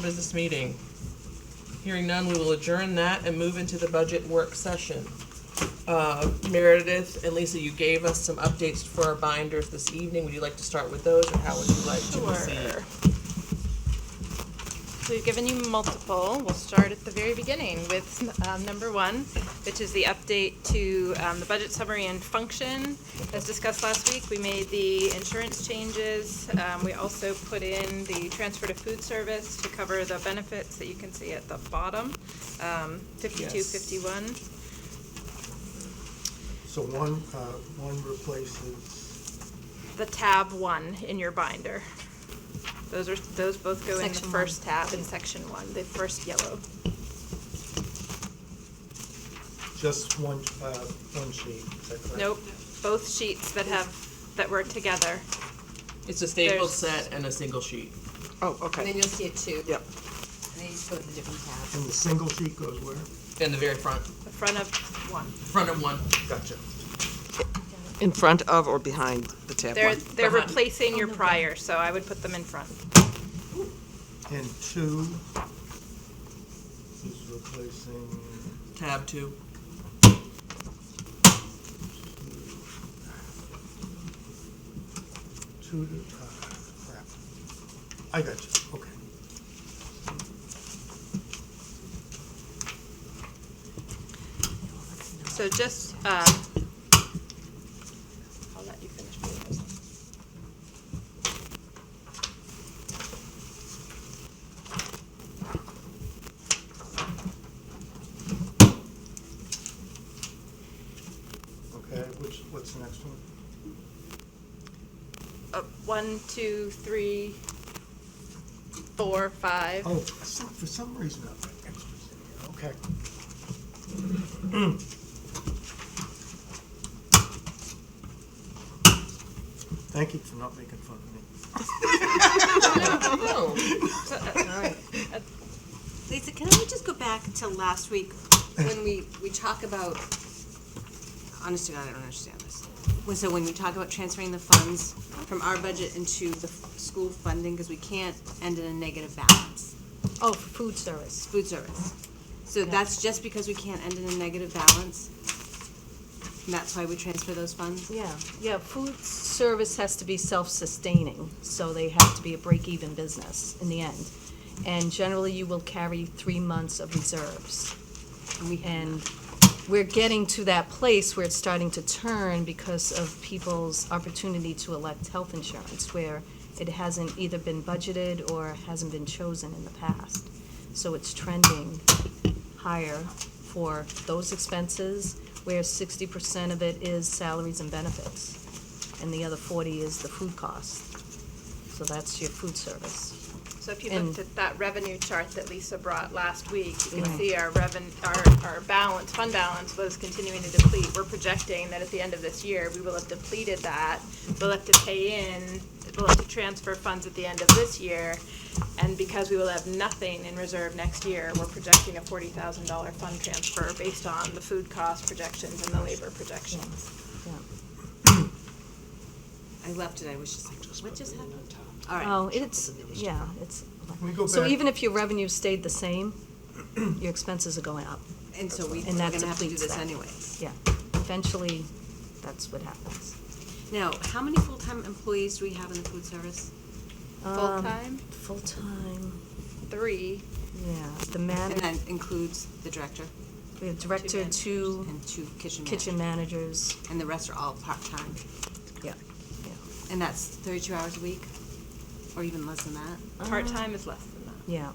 business meeting. Hearing none, we will adjourn that and move into the budget work session. Uh, Meredith and Lisa, you gave us some updates for our binders this evening. Would you like to start with those, or how would you like to proceed? Sure. So we've given you multiple. We'll start at the very beginning with um, number one, which is the update to um, the budget summary and function. As discussed last week, we made the insurance changes. Um, We also put in the transfer to food service to cover the benefits that you can see at the bottom, um, 52, Yes. 51. So one, uh, one replaces, the tab one in your binder. Those are, those both go in the Section one. first tab in section one, the first yellow. just one, uh, one sheet, is that correct? Nope, both sheets that have, that were together. It's a stapled There's- set and a single sheet. Oh, And okay. then you'll see it too. Yep. And then you just go to the different tabs. And the single sheet goes where? In the very front, The front of one. front of one. Gotcha. In front of or behind the tab They're, one? they're Behind. replacing your prior, so I would put them in front. And two is replacing, Tab two. two, to- uh, crap. I got you, okay. So just, um, I'll let you finish doing this one. Okay, which, what's the next one? Uh, One, two, three, four, five. Oh, for some- for some reason, I've got extras in here, okay. Thank you for not making fun of me. Oh, So, uh, Lisa, can we just go back to last week when we, we talk about, honestly, I don't understand this. When- So when you talk about transferring the funds from our budget into the f- school funding, because we can't end in a negative balance, Oh, for food service. food service. So that's just because we can't end in a negative balance? And that's why we transfer those funds? Yeah, yeah, food service has to be self-sustaining, so they have to be a break-even business in the end. And generally, you will carry three months of reserves. And we're getting to that place where it's starting to turn because of people's opportunity to elect health insurance, where it hasn't either been budgeted or hasn't been chosen in the past. So it's trending higher for those expenses, where sixty percent of it is salaries and benefits, and the other forty is the food cost. So that's your food service. So if you And- looked at that revenue chart that Lisa brought last week, you can Right. see our reven, our, our balance, fund balance was continuing to deplete. We're projecting that at the end of this year, we will have depleted that. We'll have to pay in, we'll have to transfer funds at the end of this year. And because we will have nothing in reserve next year, we're projecting a forty thousand dollar fund transfer based on the food cost projections and the labor projections. Yeah. I left it, I was just like, what just happened? All right. Oh, it's, yeah, it's, Can we go so back- even if your revenue stayed the same, your expenses are going up. And so we, And we're that gonna have to do depletes this that. anyway. Yeah, eventually, that's what happens. Now, how many full-time employees do we have in the food service? Full-time, Full-time, three, yeah, the And manager, that includes the director we have director, managers two and two kitchen managers? kitchen managers, And the rest are all part-time? yeah, And that's thirty-two hours a week? Or even less than that? Uh-huh. part-time is less than that. yeah.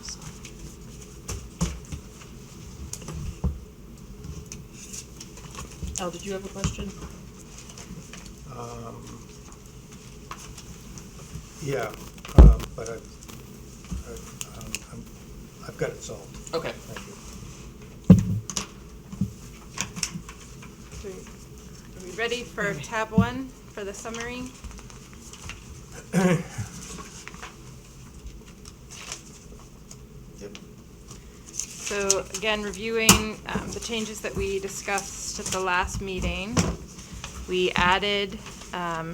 So. Oh, did you have a question? Um, Yeah, um, but I, I, um, I'm, I've got it solved, Okay. thank you. So, Are we ready for tab one, for the summary? Yep. So again, reviewing um, the changes that we discussed at the last meeting, we added um,